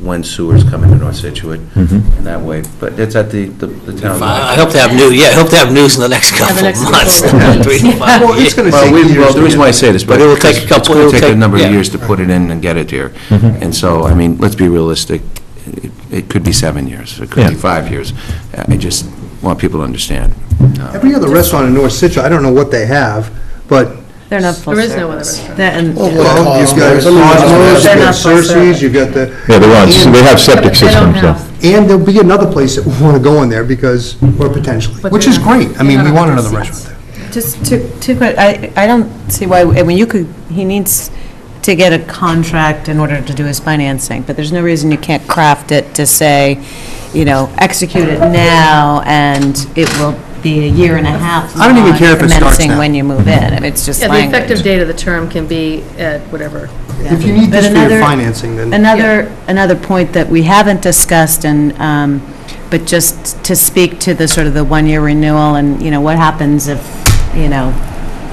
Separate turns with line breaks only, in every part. when sewers come into North Situate
Hmm.
Mm-hmm.
in that way, but it's at the, the- the town
I I
line.
hope to have news, yeah, I hope to have news in the next
the
couple of
next couple
months.
of
months.
Three to five
Well, it's
years.
going to
Well,
take
we,
years.
well, the
to
reason why I
get-
say this, but
But it will take a
it's
couple- it
going
will
to take a
take-
number of
yeah.
years to put it in and get it here.
Mm-hmm.
And so, I mean, let's be realistic, it, it could be seven years, it could be
Yeah.
five years. I just want people to understand. Uh,
Every other restaurant in North Situate, I don't know what they have, but,
They're not full
There
service.
is no other
That and-
well, you've got
Cosmo's.
Cosmos,
They're
you've got
not full
Cersei's,
service.
you've got the...
Yeah, they want, they have septic
They
systems
don't
now.
have-
And there'll be another place that we want to go in there because, or potentially,
But
which
they're
is
not-
great. I mean,
they're
we
not
want
on the
another
seats.
restaurant there.
Just two, two quick, I, I don't see why, I mean, you could, he needs to get a contract in order to do his financing, but there's no reason you can't craft it to say, you know, execute it now, and it will be a year and a half.
I don't even
long
care if it starts
Commencing
now.
when you move in, I mean, it's just
Yeah, the effective
language.
date of the term can be at whatever.
If you need
But
this for your
another-
financing, then,
Another, another point that we haven't discussed and, um, but just to speak to the sort of the one-year renewal and, you know, what happens if, you know,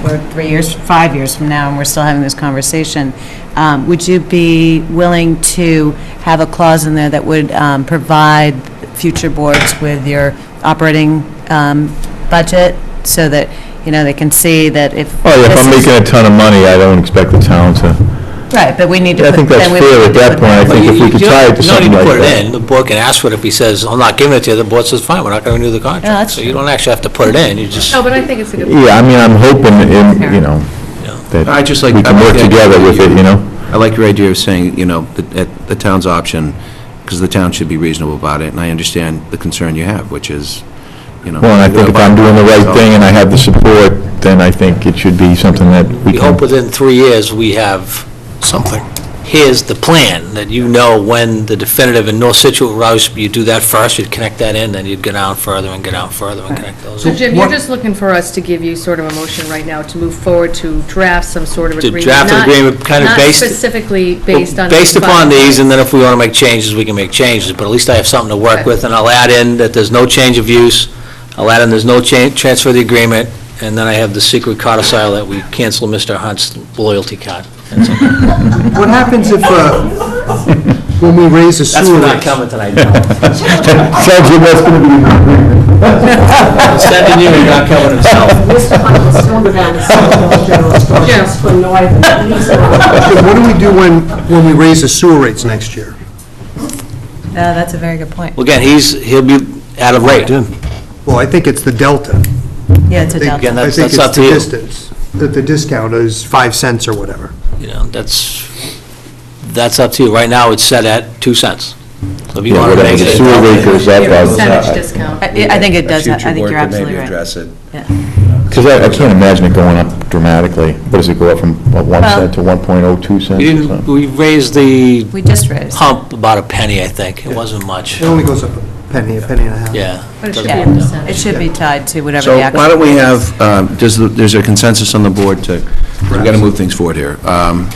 we're three years, five years from now and we're still having this conversation, um, would you be willing to have a clause in there that would, um, provide future boards with your operating, um, budget so that, you know, they can see that if.
Oh, yeah, if
this
I'm
is-
making a ton of money, I don't expect the town to,
Right, but we need to.
I
put-
think that's
then we
fair
would
at that
put
point. I
that-
Well,
think
you-
if we
you
could
don't-
tie it to something like
You don't need to put
that.
it in, the board can ask for it if he says, I'm not giving it to you, the board says, fine, we're not going to renew the contract.
that's
So you don't actually have to put it in, you just,
No, but I think it's a good.
yeah, I mean, I'm hoping, in- you know,
I
that
just
we
like. I
can
like
work
the idea
together
that
with it, you know?
I like your idea of saying, you know, that- at the town's option, because the town should be reasonable about it, and I understand the concern you have, which is, you know.
Well, and I think if I'm doing the right thing and I have the support, then I think it should be something that we
we hope
can,
within three years we have something. Here's the plan, that you know when the definitive in North Situate routes, you do that first, you'd connect that in, then you'd get down further and get down further and connect those.
So Jim, you're
What-
just looking for us to give you sort of a motion right now to move forward to draft some sort of
To
agreement.
draft an
not-
agreement kind of based-
Not specifically based on.
Based
these
upon
five.
these, and then if we want to make changes, we can make changes, but at least I have something to work
Okay.
with, and I'll add in that there's no change of use, I'll add in there's no change, transfer of the agreement, and then I have the secret codicil that we cancel Mr. Hunt's loyalty card.
what happens if, uh, when we raise the
That's
sewer
for not
rates?
coming tonight, no.
sounds like that's going to be
Sending you, and not coming himself.
Mr. Hunt was sworn down as Solicitor General
Yes.
Instructions for North East.
What do we do when, when we raise the sewer rates next year?
Uh, that's a very good point.
Well, Again, he's, he'll be out of rate.
Well, I think it's the delta.
Yeah, it's
I
a
think-
delta.
Again, that's- that's
I
up
think
to you.
it's the distance, that the discount is five cents or whatever.
You know, that's, that's up to you. Right now, it's set at two cents. So if you want to
whatever
make
the
it,
sewer rate goes up,
Percentage
I-
discount.
I I think it does, I think you're absolutely right.
it.
because I I can't imagine it going up dramatically. What does it go up from, what, one
Well-
cent to 1.02 cents?
we
or
didn't,
something?
we raised the
We just raised.
pump about a penny, I think. It wasn't much,
It only goes up a penny, a penny and a half.
yeah.
But it
Doesn't
should be a
go down.
percentage.
It should be tied to whatever
So
the
why
actual...
don't we have, um, does the- there's a consensus on the board to, we've got to move things forward here, um,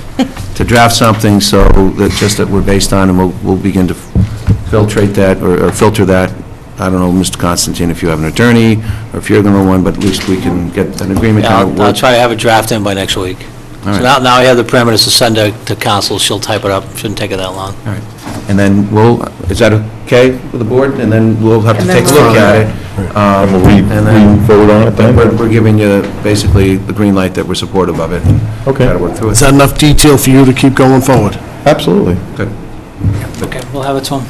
to draft something so that just that we're based on, and we'll we'll begin to filtrate that, or or filter that. I don't know, Mr. Constantine, if you have an attorney, or if you're going to one, but at least we can get an agreement.
Yeah,
how it
I'll I'll
works.
try to have a draft in by next week.
All
So
right.
now, now I have the parameters to send to to council, she'll type it up, shouldn't take it that long.
All right. And then we'll, is that okay with the board? And then we'll have to
And then
take a look
we'll-
at it. Um,
Will we
And then
we vote on it then?
we're we're giving you basically the green light that we're supportive of it. and
Okay.
Got to work through it.
Is that enough detail for you to keep going forward?
Absolutely.
Okay, we'll have it, Tom.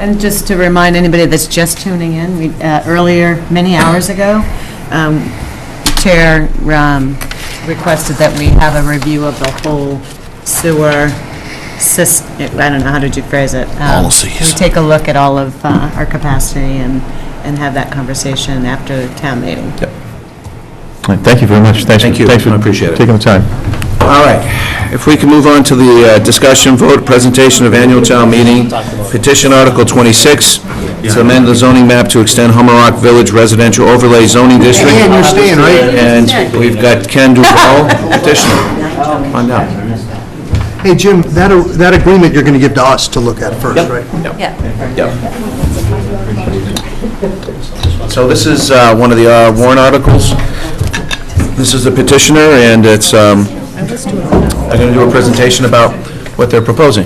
And just to remind anybody that's just tuning in, we, uh, earlier, many hours ago, um, Chair um, requested that we have a review of the whole sewer sys, I don't know, how did you phrase it? Um,
Policies.
We take a look at all of uh, our capacity and, and have that conversation after the town meeting.
All right, Thank you very much. Thanks for-
Thank you.
thanks for
I appreciate it.
Taking the time.
All right. If we can move on to the uh, discussion, vote, presentation of annual town meeting, petition Article 26, to amend the zoning map to extend Hummerock Village Residential Overlay Zoning District.
And you're staying, right?
And we've got Ken Duval, petitioner. Come on down.
Hey, Jim, that, that agreement you're going to give to us to look at first, right?
Yep. So this is uh, one of the uh, warrant articles. This is the petitioner, and it's, um, they're going to do a presentation about what they're proposing.